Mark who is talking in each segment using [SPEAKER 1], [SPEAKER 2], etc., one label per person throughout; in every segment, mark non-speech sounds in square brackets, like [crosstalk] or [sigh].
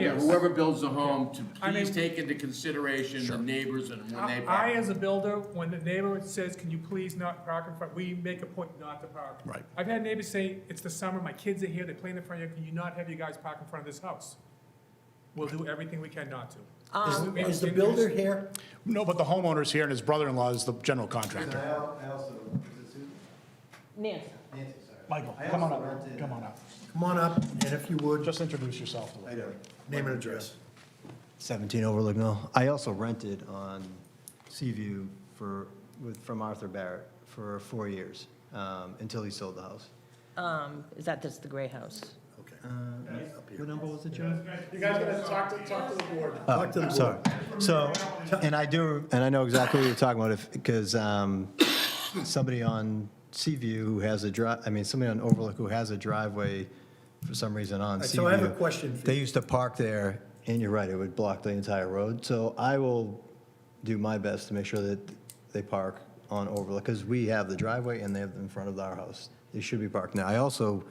[SPEAKER 1] Yeah.
[SPEAKER 2] whoever builds a home to
[SPEAKER 1] I mean-
[SPEAKER 2] please take into consideration the neighbors and when they
[SPEAKER 1] I, I,
[SPEAKER 2] park.
[SPEAKER 1] as a builder, when the neighbor says, can you please not park in front, we make a point not to park.
[SPEAKER 3] Right.
[SPEAKER 1] I've had neighbors say, it's the summer, my kids are here, they play in the front yard, can you not have you guys park in front of this house? We'll do everything we can not to.
[SPEAKER 4] Um,
[SPEAKER 1] We-
[SPEAKER 5] Is the
[SPEAKER 1] we-
[SPEAKER 5] builder here?
[SPEAKER 3] No, but the homeowner's here and his brother-in-law is the general contractor.
[SPEAKER 6] And I al- I also, is it Susan?
[SPEAKER 4] Nancy,
[SPEAKER 6] Nancy, sorry.
[SPEAKER 3] Michael,
[SPEAKER 6] I
[SPEAKER 3] come on
[SPEAKER 6] also
[SPEAKER 3] up,
[SPEAKER 6] rented-
[SPEAKER 3] come on up.
[SPEAKER 5] Come on up, and if you would,
[SPEAKER 3] Just introduce yourself to
[SPEAKER 6] How
[SPEAKER 3] us.
[SPEAKER 6] you doing?
[SPEAKER 5] name and address.
[SPEAKER 7] 17 Overlook Mill. I also rented on Seaview for, with, from Arthur Barrett for four years, um, until he sold the house.
[SPEAKER 4] um, is that just the gray house?
[SPEAKER 5] Okay.
[SPEAKER 7] What number was it, John?
[SPEAKER 1] You guys gotta talk to, talk to the board.
[SPEAKER 7] Oh,
[SPEAKER 5] to the board.
[SPEAKER 7] sorry. So, and I do, and I know exactly what you're talking about, if, because, um, somebody on Seaview who has a dri, I mean, somebody on Overlook who has a driveway for some reason on Seaview.
[SPEAKER 5] So I have a question for
[SPEAKER 7] They
[SPEAKER 5] you.
[SPEAKER 7] used to park there, and you're right, it would block the entire road. So I will do my best to make sure that they park on Overlook, because we have the driveway and they have in front of our house. They should be parked now. I also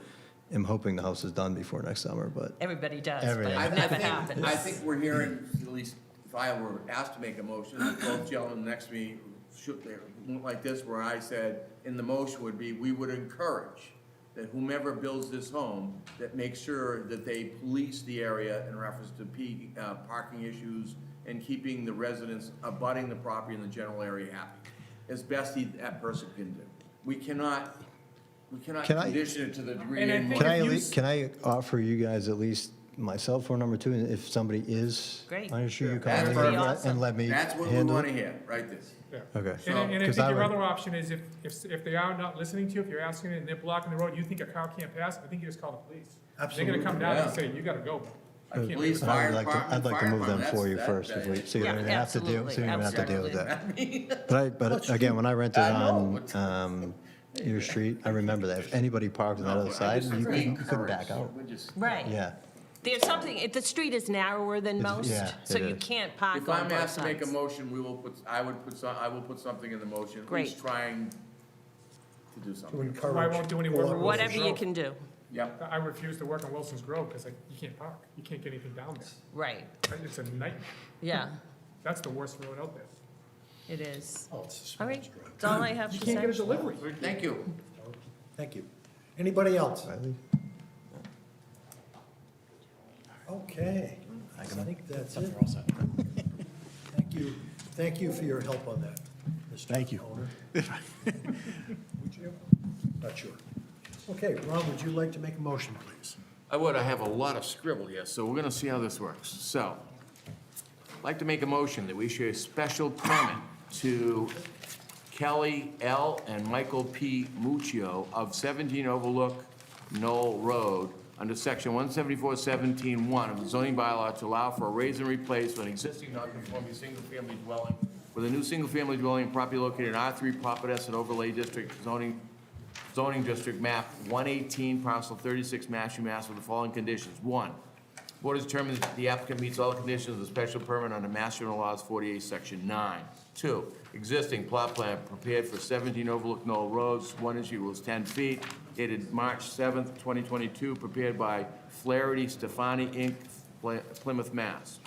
[SPEAKER 7] am hoping the house is done before next summer, but
[SPEAKER 4] Everybody does, but
[SPEAKER 7] Everybody.
[SPEAKER 2] I- I
[SPEAKER 4] it never
[SPEAKER 2] think-
[SPEAKER 4] happens.
[SPEAKER 2] I think we're hearing, at least if I were asked to make a motion, both gentlemen next to me shook their, went like this, where I said, in the motion would be, we would encourage that whomever builds this home, that make sure that they police the area in reference to P, uh, parking issues and keeping the residents abutting the property in the general area happy, as best he, that person can do. We cannot, we cannot
[SPEAKER 7] Can I-
[SPEAKER 2] condition it to the degree.
[SPEAKER 1] And I
[SPEAKER 2] in
[SPEAKER 1] think
[SPEAKER 2] which-
[SPEAKER 7] Can
[SPEAKER 1] if
[SPEAKER 7] I, at
[SPEAKER 1] you
[SPEAKER 7] lea-
[SPEAKER 1] s-
[SPEAKER 7] can I offer you guys at least my cell phone number too, and if somebody is?
[SPEAKER 4] Great.
[SPEAKER 7] I'm sure you call
[SPEAKER 2] That's
[SPEAKER 7] me
[SPEAKER 2] pretty
[SPEAKER 7] and let-
[SPEAKER 4] awesome.
[SPEAKER 7] and let me
[SPEAKER 2] That's what we
[SPEAKER 7] handle
[SPEAKER 2] wanna
[SPEAKER 7] it?
[SPEAKER 2] hear, right this.
[SPEAKER 7] Okay.
[SPEAKER 1] And, I- and I
[SPEAKER 7] Because
[SPEAKER 1] think
[SPEAKER 7] I
[SPEAKER 1] your
[SPEAKER 7] would-
[SPEAKER 1] other option is if, if, if they are not listening to you, if you're asking and they're blocking the road, you think a car can't pass, I think you just call the police. They're
[SPEAKER 5] Absolutely.
[SPEAKER 1] gonna come down and
[SPEAKER 2] Yeah.
[SPEAKER 1] say, you gotta go. I can't
[SPEAKER 2] Police,
[SPEAKER 1] do it."
[SPEAKER 7] I
[SPEAKER 2] fire
[SPEAKER 7] would like to,
[SPEAKER 2] department,
[SPEAKER 7] I'd like to
[SPEAKER 2] fire
[SPEAKER 7] move them
[SPEAKER 2] department,
[SPEAKER 7] for you
[SPEAKER 2] that's-
[SPEAKER 7] first,
[SPEAKER 2] that's
[SPEAKER 7] if we,
[SPEAKER 2] bad.
[SPEAKER 7] see what
[SPEAKER 4] Yeah,
[SPEAKER 7] we have to do,
[SPEAKER 4] absolutely,
[SPEAKER 7] see what we have to deal with that.
[SPEAKER 2] [laughs]
[SPEAKER 7] But I, but again, when I rented
[SPEAKER 2] I know.
[SPEAKER 7] on, um, your street, I remember that, if anybody parked on that
[SPEAKER 2] No,
[SPEAKER 7] other
[SPEAKER 2] I
[SPEAKER 7] side,
[SPEAKER 2] just
[SPEAKER 7] you
[SPEAKER 2] agree.
[SPEAKER 7] couldn't, you couldn't back out.
[SPEAKER 2] We're just-
[SPEAKER 4] Right.
[SPEAKER 7] Yeah,
[SPEAKER 4] There's something, if the street is narrower than
[SPEAKER 7] It's-
[SPEAKER 4] most,
[SPEAKER 7] yeah,
[SPEAKER 4] so
[SPEAKER 7] it
[SPEAKER 4] you
[SPEAKER 7] is.
[SPEAKER 4] can't park
[SPEAKER 2] If
[SPEAKER 4] on
[SPEAKER 2] I'm
[SPEAKER 4] both
[SPEAKER 2] asked to make a
[SPEAKER 4] sides.
[SPEAKER 2] motion, we will put, I would put some, I will put something in the motion. at
[SPEAKER 4] Great.
[SPEAKER 2] least Trying to do
[SPEAKER 5] To
[SPEAKER 2] something.
[SPEAKER 5] encourage.
[SPEAKER 1] I won't do any work.
[SPEAKER 5] collaboration.
[SPEAKER 4] Whatever you
[SPEAKER 1] Road.
[SPEAKER 4] can do,
[SPEAKER 2] Yep.
[SPEAKER 1] I refuse to work on Wilson's Grove, cause I, you can't park, you can't get anything down there,
[SPEAKER 4] right,
[SPEAKER 1] it's a nightmare,
[SPEAKER 4] yeah,
[SPEAKER 1] that's the worst road out there.
[SPEAKER 4] it is.
[SPEAKER 5] Oh, it's a small
[SPEAKER 4] All right,
[SPEAKER 5] drive.
[SPEAKER 4] that's all I have
[SPEAKER 1] You
[SPEAKER 4] to
[SPEAKER 1] can't get a
[SPEAKER 4] say.
[SPEAKER 1] delivery.
[SPEAKER 2] Thank you.
[SPEAKER 5] Thank you. Anybody else?
[SPEAKER 7] Riley?
[SPEAKER 5] Okay. I think that's it. [laughs] Thank you, thank you for your help on that, Mr.
[SPEAKER 3] Thank you. [laughs]
[SPEAKER 5] Owner. Would you? Not sure. Okay, Ron, would you like to make a motion, please?
[SPEAKER 2] I would, I have a lot of scribble here, so we're gonna see how this works. So, I'd like to make a motion that we issue a special permit to Kelly L. and Michael P. Muccio of 17 Overlook Knoll Road under section 174-17-1 of the zoning bylaw to allow for a raise and replace of an existing non-conforming single-family dwelling with a new single-family dwelling property located in R3 Providence and Overlay District zoning zoning district map 118, parcel 36, Mashpee, Mass. with the following conditions. One, board has determined that the applicant meets all the conditions of the special permit under Mass General Laws 48, Section 9. Two, existing plot plan prepared for 17 Overlook Knoll Roads, one inch equals 10 feet, dated March 7th, 2022, prepared by Flaherty Stefani, Inc., Ply- Plymouth, Mass.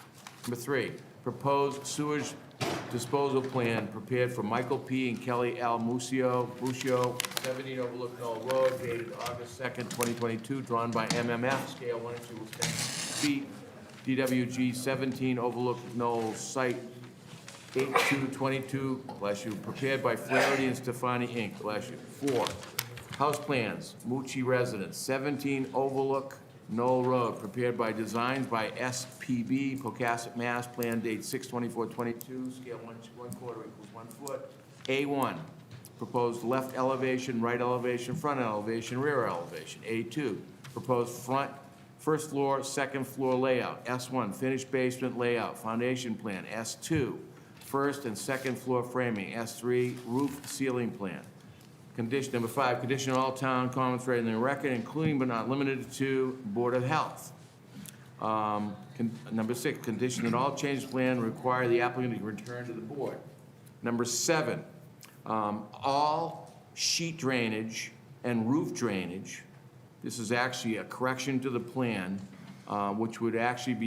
[SPEAKER 2] Number three, proposed sewage disposal plan prepared for Michael P. and Kelly L. Musio, Musio, 17 Overlook Knoll Road, dated August 2nd, 2022, drawn by MMF, scale 1 to 10 feet, DWG 17 Overlook Knoll Site 8222, bless you, prepared by Flaherty and Stefani, Inc., bless you. Four, house plans, Mucci Residence, 17 Overlook Knoll Road, prepared by Designs by SPB, Pocasset, Mass., plan date 6/24/22, scale one one quarter equals 1 foot. A1, proposed left elevation, right elevation, front elevation, rear elevation. A2, proposed front First floor, second floor layout, S1, finished basement layout, foundation plan, S2, first and second floor framing, S3, roof ceiling plan. Condition number five, condition all town comments read in the record, including but not limited to Board of Health. Um, con- Number six, condition that all change plan require the applicant to return to the board. Number seven, um, all sheet drainage and roof drainage, this is actually a correction to the plan, uh, which would actually be